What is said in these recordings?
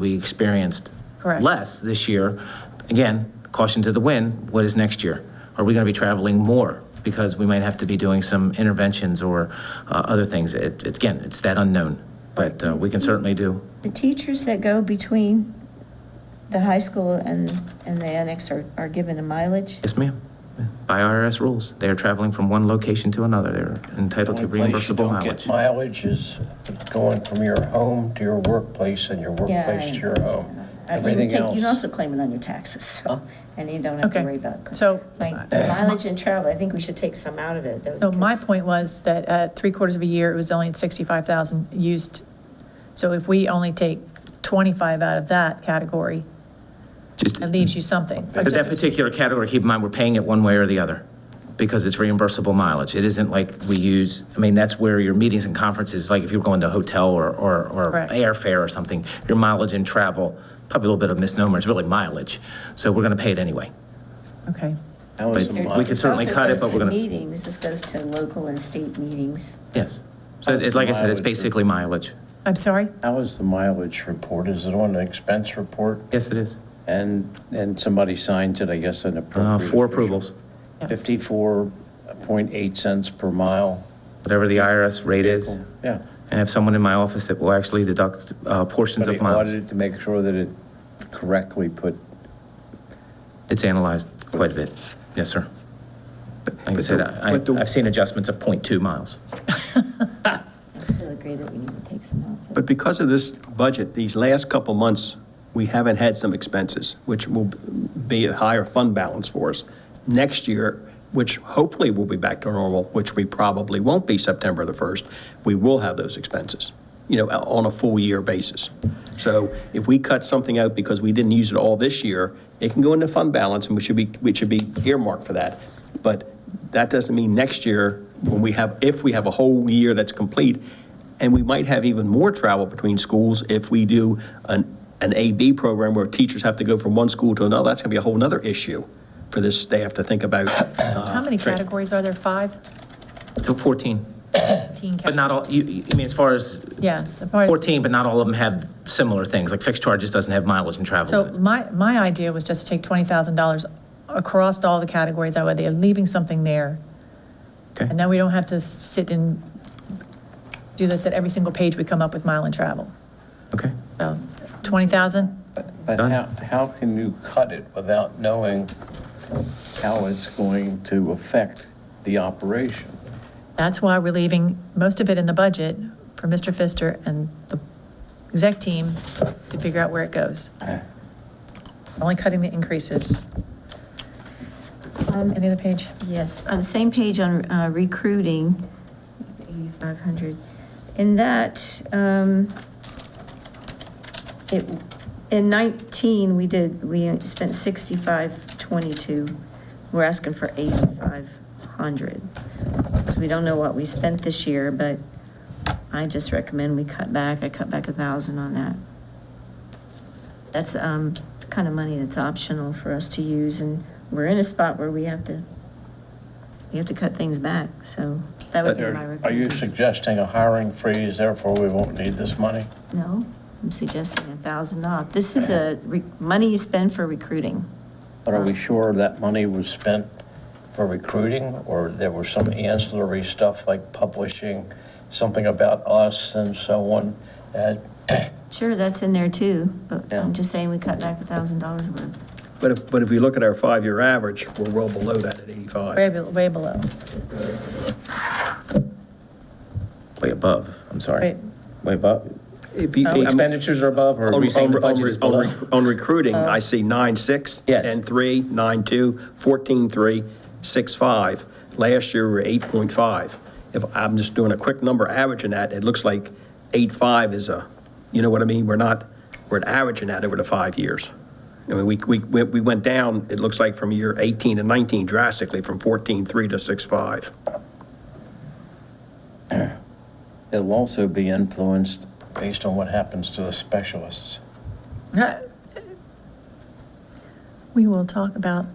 We experienced Correct. less this year. Again, caution to the wind, what is next year? Are we going to be traveling more? Because we might have to be doing some interventions or uh, other things. It- it- Again, it's that unknown, but uh, we can certainly do. The teachers that go between the high school and, and the annex are, are given a mileage? Yes, ma'am. By IRS rules, they are traveling from one location to another. They're entitled to Only place you reimbursable don't mileage. get mileage is going from your home to your workplace and your Yeah, I workplace to oh. your home. Uh, you can Everything take- You can else. also claim it on your taxes, so, and you don't have to Okay. worry about. So- uh, Like mileage and travel, I think we should take some out of it. So my because- point was that at three quarters of a year, it was only at 65,000 used. So if we only take 25 out of that category, Just- it leaves you something. But that particular category, keep in mind, we're paying it one way or the other because it's reimbursable mileage. It isn't like we use, I mean, that's where your meetings and conferences, like if you're going to a hotel or, or, or Correct. airfare or something, your mileage and travel, probably a little bit of misnomer, it's really mileage. So we're going to pay it anyway. Okay. That but was some we could This mileage. certainly also cut it, goes but to we're gonna- Meetings, this goes to local and state meetings. Yes. So That's it- like I said, mileage. it's basically mileage. I'm sorry? How is the mileage report? Is it on an expense report? Yes, it is. And, and somebody signs it, I guess, an Uh, appropriate. Four official. approvals, Yes. 54.8 cents per mile. whatever the IRS rate is. Yeah. I have someone in my office that will actually deduct uh, portions But of it miles. audited to make sure that it correctly put, It's analyzed quite a bit. Yes, sir. Like I said, I, but the- I've seen adjustments of 0.2 miles. I feel agree that we need to take some out. But because of this budget, these last couple months, we haven't had some expenses, which will be a higher fund balance for us. Next year, which hopefully will be back to normal, which we probably won't be September the 1st, we will have those expenses, you know, uh, on a full year basis. So if we cut something out because we didn't use it all this year, it can go into fund balance and we should be, we should be earmarked for that. But that doesn't mean next year, when we have, if we have a whole year that's complete, and we might have even more travel between schools if we do an, an AB program where teachers have to go from one school to another. That's going to be a whole nother issue for this staff to think about. Uh, uh, How many categories are there? Five? So 14, 15 but not all, you, you- I mean, as far as Yes. apart- 14, but not all of them have similar things, like fixed charges doesn't have mileage and travel. So in it. my, my idea was just to take $20,000 across all the categories, that way they're leaving something there. Okay. And then we don't have to s- sit and do this at every single page we come up with mile and travel. Okay, So 20,000? but Done. how, how can you cut it without knowing how it's going to affect the operation? That's why we're leaving most of it in the budget for Mr. Pfister and the exec team to figure out where it goes. Only cutting the increases. Um, Any other page? Yes, on the same page on uh, recruiting, 8,500. In that, um, it, in 19, we did, we spent 6522. We're asking for 8,500. So We don't know what we spent this year, but I just recommend we cut back. I cut back a 1,000 on that. That's um, the kind of money that's optional for us to use, and we're in a spot where we have to, we have to cut things back, so that would be my Are are you recommendation. suggesting a hiring freeze, therefore we won't need this money? No, I'm suggesting a thousand off. This is a re- money you spend for recruiting. But are we sure that money was spent for recruiting, or there was some ancillary stuff like publishing something about us and so on? Uh, Sure, that's in there too, but Yeah. I'm just saying we cut back a thousand dollars worth. But if, but if we look at our five-year average, we're well below that at 85. Way, be- way below. way above, I'm sorry. Wait. Way above? If you- The expenditures are above, or are On- we saying the on- on- budget is on below? rec- On recruiting, I see nine six. Yes. And three, nine two, fourteen three, six five. Last year, we were eight point five. If I'm just doing a quick number averaging that, it looks like eight five is a, you know what I mean? We're not, we're averaging that over the five years. I mean, we, we, we we went down, it looks like from year eighteen to nineteen drastically, from fourteen three to six five. It'll also be influenced based on what happens to the specialists. We will talk about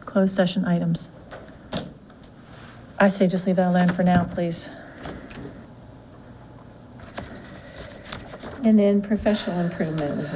closed session items. I say just leave that alone for now, please. And then professional improvement was